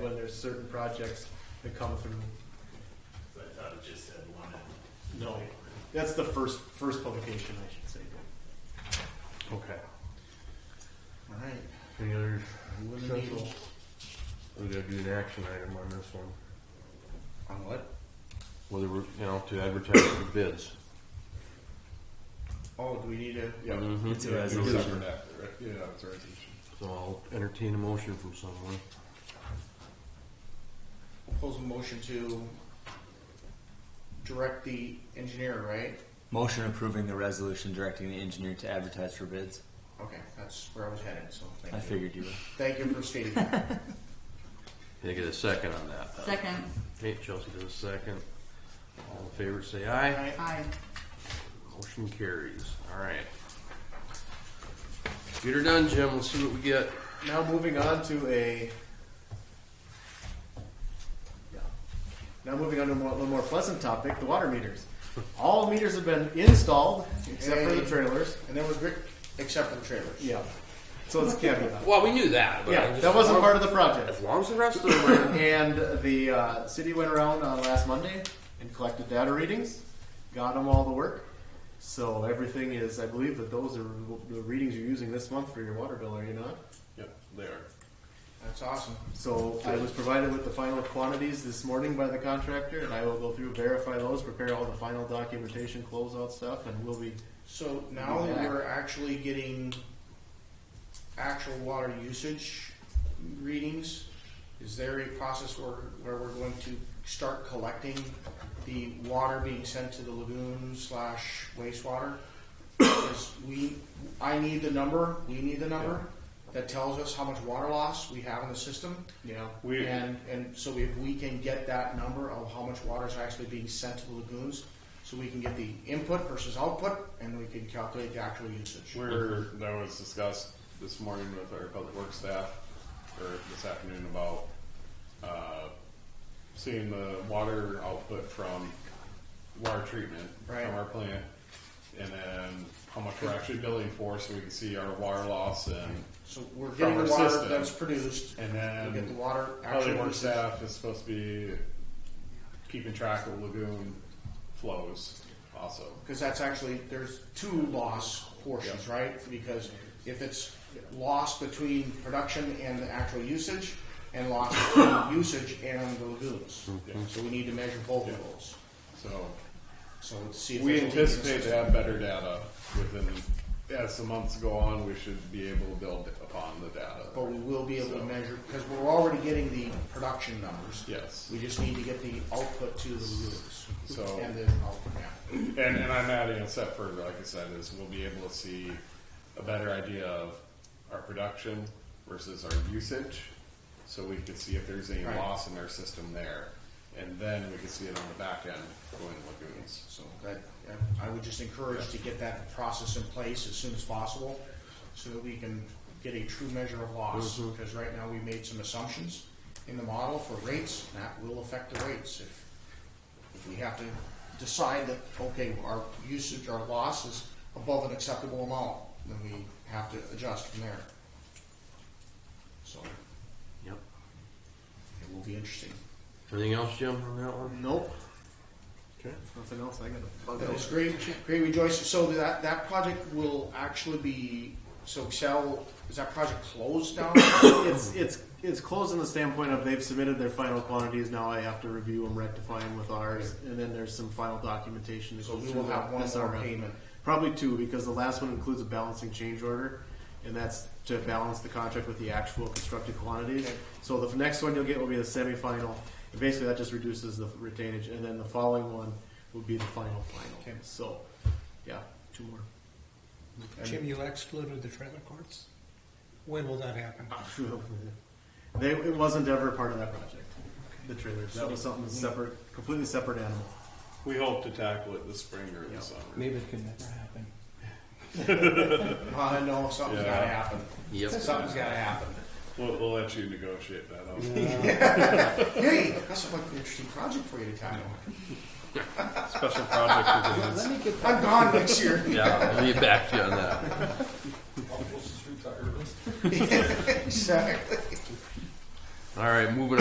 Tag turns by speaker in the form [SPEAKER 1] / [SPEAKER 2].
[SPEAKER 1] when there's certain projects that come through.
[SPEAKER 2] I thought it just said one.
[SPEAKER 1] No, that's the first, first publication, I should say.
[SPEAKER 3] Okay.
[SPEAKER 1] Alright.
[SPEAKER 3] Any other,
[SPEAKER 1] Moving the
[SPEAKER 3] Sure.
[SPEAKER 1] needle.
[SPEAKER 3] we gotta do an action item on this one,
[SPEAKER 4] On what?
[SPEAKER 3] whether we're, you know, to advertise for bids.
[SPEAKER 1] Oh, do we need a,
[SPEAKER 4] Yeah,
[SPEAKER 3] Mhm.
[SPEAKER 4] it's
[SPEAKER 3] Yeah,
[SPEAKER 4] a
[SPEAKER 3] we do.
[SPEAKER 4] resolution. Yeah, it's a resolution.
[SPEAKER 3] So I'll entertain a motion from someone.
[SPEAKER 1] propose a motion to direct the engineer, right?
[SPEAKER 5] Motion approving the resolution directing the engineer to advertise for bids.
[SPEAKER 1] Okay, that's where I was headed, so
[SPEAKER 5] I
[SPEAKER 1] thank you.
[SPEAKER 5] figured you would.
[SPEAKER 1] Thank you for stating that.
[SPEAKER 3] Can I get a second on that?
[SPEAKER 6] Second,
[SPEAKER 3] Okay, Chelsea does a second. All in favor, say aye.
[SPEAKER 1] Alright,
[SPEAKER 6] aye.
[SPEAKER 3] Motion carries. All right. Get her done, Jim. Let's see what we get.
[SPEAKER 1] now moving on to a. Yeah. Now moving on to a more- little more pleasant topic, the water meters. All meters have been installed, except for the
[SPEAKER 4] Hey.
[SPEAKER 1] trailers.
[SPEAKER 4] And that was Rick, except for the trailers.
[SPEAKER 1] Yeah. So it's caveat.
[SPEAKER 3] Well, we knew that. But I
[SPEAKER 1] Yeah,
[SPEAKER 3] just-
[SPEAKER 1] that wasn't part of the project.
[SPEAKER 3] As long as the rest of them are.
[SPEAKER 1] And the uh, city went around on last Monday and collected data readings, got them all the work. So everything is, I believe that those are the readings you're using this month for your water bill, are you not?
[SPEAKER 4] Yep, they are.
[SPEAKER 1] That's awesome. So I was provided with the final quantities this morning by the contractor, and I will go through, verify those, prepare all the final documentation, closeout stuff, and we'll be
[SPEAKER 4] So now
[SPEAKER 1] Yeah.
[SPEAKER 4] we're actually getting actual water usage readings. Is there a process where, where we're going to start collecting the water being sent to the lagoon slash wastewater? Because we, I need the number, we need the number that tells us how much water loss we have in the system.
[SPEAKER 1] you know.
[SPEAKER 2] We-
[SPEAKER 4] And, and so if we can get that number of how much water is actually being sent to the lagoons, so we can get the input versus output, and we can calculate the actual usage.
[SPEAKER 7] We're, that was discussed this morning with our public works staff, or this afternoon about, uh, seeing the water output from water treatment
[SPEAKER 4] Right.
[SPEAKER 7] from our plant, and then how much we're actually billing for, so we can see our water loss and,
[SPEAKER 4] So we're
[SPEAKER 7] From
[SPEAKER 4] getting
[SPEAKER 7] our
[SPEAKER 4] the water
[SPEAKER 7] system.
[SPEAKER 4] that's produced,
[SPEAKER 7] and
[SPEAKER 4] we get the
[SPEAKER 7] then
[SPEAKER 4] water actual
[SPEAKER 7] public works
[SPEAKER 4] usage.
[SPEAKER 7] staff is supposed to be keeping track of lagoon flows also.
[SPEAKER 4] Because that's actually, there's two loss portions, right? Because if it's loss between production and the actual usage, and loss between usage and the lagoons.
[SPEAKER 7] Mm-hmm.
[SPEAKER 4] So we need to measure both of those.
[SPEAKER 7] So,
[SPEAKER 4] So let's see if
[SPEAKER 7] We
[SPEAKER 4] there's a leak in the
[SPEAKER 7] anticipate to
[SPEAKER 4] system.
[SPEAKER 7] have better data within, as the months go on, we should be able to build upon the
[SPEAKER 4] But
[SPEAKER 7] data.
[SPEAKER 4] we will be able to
[SPEAKER 7] So-
[SPEAKER 4] measure, because we're already getting the production numbers.
[SPEAKER 7] Yes,
[SPEAKER 4] We just need to get the output to the lagoons.
[SPEAKER 7] So-
[SPEAKER 4] And then output, yeah.
[SPEAKER 7] and, and I'm adding a step further, like I said, is we'll be able to see a better idea of our production versus our usage. So we can see if there's any
[SPEAKER 4] Right.
[SPEAKER 7] loss in our system there, and then we can see it on the back end going lagoons.
[SPEAKER 4] So that, yeah, I would just encourage to get that process in place as soon as possible so that we can get a true measure of loss. Because right now we made some assumptions in the model for rates, and that will affect the rates if, if we have to decide that, okay, our usage, our loss is above an acceptable amount, then we have to adjust from there. So it
[SPEAKER 3] Yep.
[SPEAKER 4] will be interesting.
[SPEAKER 3] Anything else, Jim, on that one?
[SPEAKER 1] Nope.
[SPEAKER 3] Okay.
[SPEAKER 1] Nothing else I gotta bug
[SPEAKER 4] That
[SPEAKER 1] out.
[SPEAKER 4] is great, great rejoice. So that, that project will actually be, so Excel, is that project closed now?
[SPEAKER 1] it's it's it's closed in the standpoint of they've submitted their final quantities. Now I have to review them, rectify them with ours, and then there's some final documentation. That
[SPEAKER 4] So
[SPEAKER 1] goes
[SPEAKER 4] we
[SPEAKER 1] through
[SPEAKER 4] will
[SPEAKER 1] the
[SPEAKER 4] have one more
[SPEAKER 1] SRF.
[SPEAKER 4] payment.
[SPEAKER 1] probably two, because the last one includes a balancing change order, and that's to balance the contract with the actual constructed quantities.
[SPEAKER 4] Okay.
[SPEAKER 1] So the next one you'll get will be the semifinal, and basically that just reduces the retainage, and then the following one will be the final final.
[SPEAKER 4] Okay.
[SPEAKER 1] So, yeah, two more. And-
[SPEAKER 8] Jim, you excluded the trailer courts? When will that happen?
[SPEAKER 1] They, it wasn't ever part of that project, the trailers. That was something separate, completely separate animal.
[SPEAKER 7] We hope to tackle it this spring or
[SPEAKER 1] Yeah.
[SPEAKER 7] this summer.
[SPEAKER 8] Maybe it can never happen.
[SPEAKER 4] Uh, no, something's
[SPEAKER 7] Yeah.
[SPEAKER 4] gotta happen.
[SPEAKER 3] Yep.
[SPEAKER 4] Something's gotta happen.
[SPEAKER 7] We'll, we'll let you negotiate that out.
[SPEAKER 4] Hey, that's like an interesting project for you to tackle.
[SPEAKER 7] Special project for this.
[SPEAKER 8] Let me get
[SPEAKER 4] I'm gone next year.
[SPEAKER 3] Yeah, I'll be back to you on that.
[SPEAKER 4] Exactly.
[SPEAKER 3] All right, moving on.